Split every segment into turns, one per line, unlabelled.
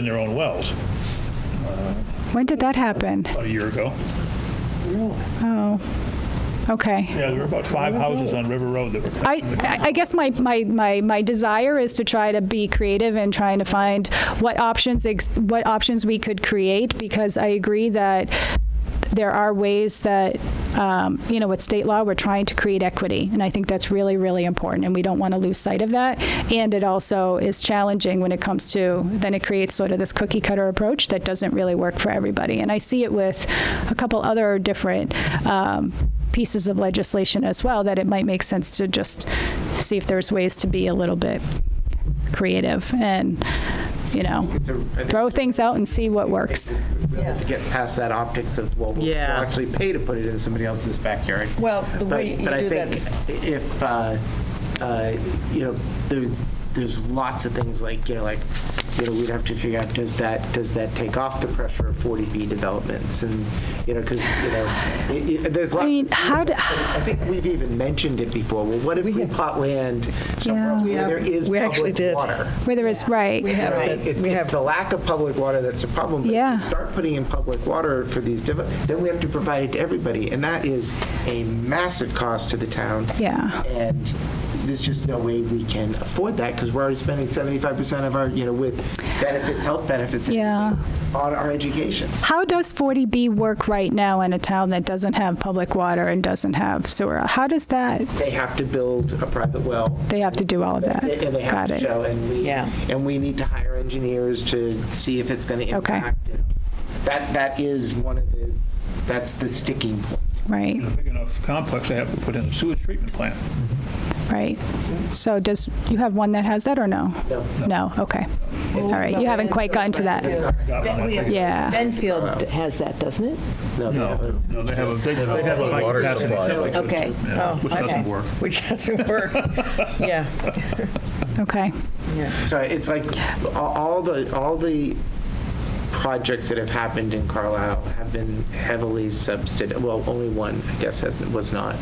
in their own wells
When did that happen?
about a year ago.
Okay.
Yeah, there were about five houses on River Road that were.
I, I- I guess my, my, my, my desire is to try to be creative and trying to find what options, ex- what options we could create, because I agree that there are ways that, um, you know, with state law, we're trying to create equity, and I think that's really, really important, and we don't want to lose sight of that. And it also is challenging when it comes to, then it creates sort of this cookie cutter approach that doesn't really work for everybody. And I see it with a couple other different, um, pieces of legislation as well, that it might make sense to just see if there's ways to be a little bit creative and, you know, throw things out and see what works.
We have to get past that optics of, well, we'll we'll
Yeah.
actually pay to put it in somebody else's backyard.
Well, the
But-
way you do
But I
that is-
think if, uh, uh, you know, there, there's lots of things like, you know, like, you know, we'd have to figure out, does that, does that take off the pressure of 40B developments? And, you know, because, you know, i- i- there's lots.
I mean,
of-
how do-
I think we've even mentioned it before. Well, what if we plot land somewhere
Yeah.
else
We
where there
have-
is
we actually
public
did.
water?
Where there is,
We
right,
have,
Right.
that-
It's,
we
it's
have,
the lack of public water that's a problem. But
Yeah.
if we start putting in public water for these, devel- then we have to provide it to everybody, and that is a massive cost to the town.
Yeah.
And there's just no way we can afford that because we're already spending 75% of our, you know, with benefits, health benefits, and
Yeah.
everything, on our education.
how does 40B work right now in a town that doesn't have public water and doesn't have sewer? How does that,
They have to build a private well.
they have to do all of that?
And they have
Got
to
it.
show, and we,
Yeah.
and we need to hire engineers to see if it's going to
Okay.
impact. it. That, that is one of the, that's the sticking point.
Right,
In a big enough complex, they have to put in a sewage treatment plant.
right. So does, you have one that has that or no?
No.
No, okay. All right, you haven't quite gotten to that.
Got it on that thing.
Yeah,
Benfield has that, doesn't it?
No,
No,
no.
no, they have a, they they have a high
Water
capacity
supply.
septic system.
Okay.
yeah,
Oh,
Which
okay.
doesn't work.
Which doesn't work. Yeah,
okay.
yeah.
Sorry, it's like a- all the, all the projects that have happened in Carlisle have been heavily subsidized, well, only one, I guess, has was not.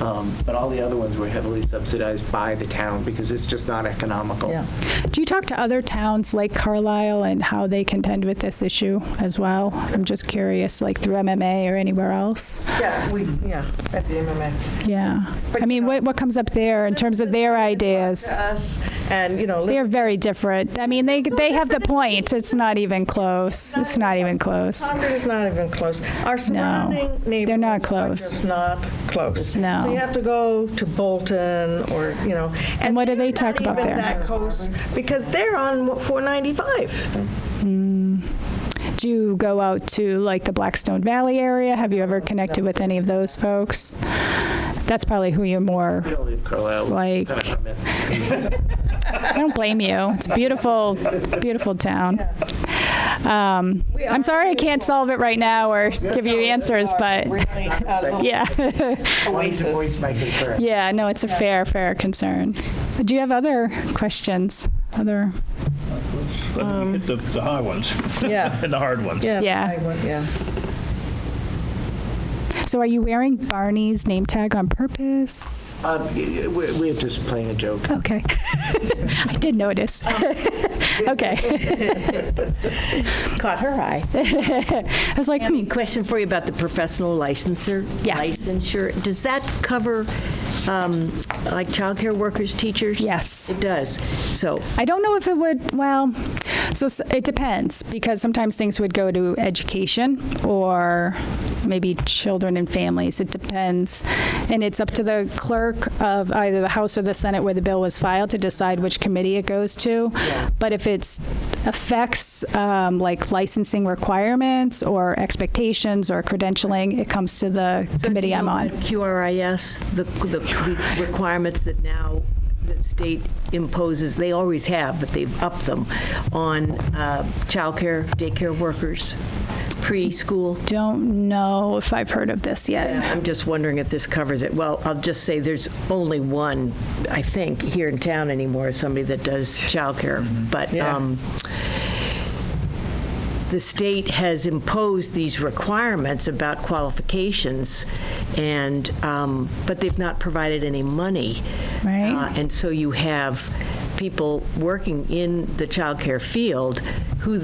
Um, But all the other ones were heavily subsidized by the town because it's just not economical.
Yeah.
Do you talk to other towns like Carlisle and how they contend with this issue as well? I'm just curious, like through MMA or anywhere else?
Yeah, we, yeah, at the MMA.
Yeah. I
But,
mean,
you know-
what, what comes up there in terms of their ideas?
To us, and, you know,
They're very different. I mean, they, they have the point. It's not even close. It's not even close.
Concord is not even close. Our surrounding neighbors.
they're not
Are
close.
just not close.
No.
So you have to go to Bolton or, you know.
And what do they talk about
They're
there?
not even that close, because they're on 495.
Do you go out to like the Blackstone Valley area? Have you ever connected with any of those folks? That's probably who you're more,
We don't live Carlisle.
Like-
Kind of comments.
I don't blame you. It's a beautiful, beautiful town. Um,
We
I'm
are
sorry I can't
beautiful.
solve it right now or give you answers, but
Really, a little
yeah,
I wanted to voice
oasis.
my concern.
yeah, no, it's a fair, fair concern. Do you have other questions? Other,
But
Um,
we hit the, the high ones
Yeah,
and the hard ones.
yeah.
Yeah.
I went- Yeah.
so are you wearing Barney's name tag on purpose?
Um, we- We're just playing a joke.
Okay. I did notice. Okay.
Caught her eye.
I was like,
I
hmm,
mean, question for you about the professional licenser.
Yeah.
Licensure, does that cover, um, like, childcare workers, teachers?
Yes.
It does. So,
I don't know if it would, well, so s- it depends, because sometimes things would go to education or maybe children and families. It depends. And it's up to the clerk of either the House or the Senate where the bill was filed to decide which committee it goes to. But if it's affects um, like licensing requirements or expectations or credentialing, it comes to the
So do
committee
you
I'm
know
on.
what QRIS, the, the- the requirements that now the state imposes, they always have, but they've upped them on uh, childcare, daycare workers, preschool.
Don't know if I've heard of this yet.
I'm just wondering if this covers it. Well, I'll just say there's only one, I think, here in town anymore, somebody that does childcare. But
Yeah.
um, the state has imposed these requirements about qualifications, and, um, but they've not provided any money.
Right.
Uh, And so you have people working in the childcare field who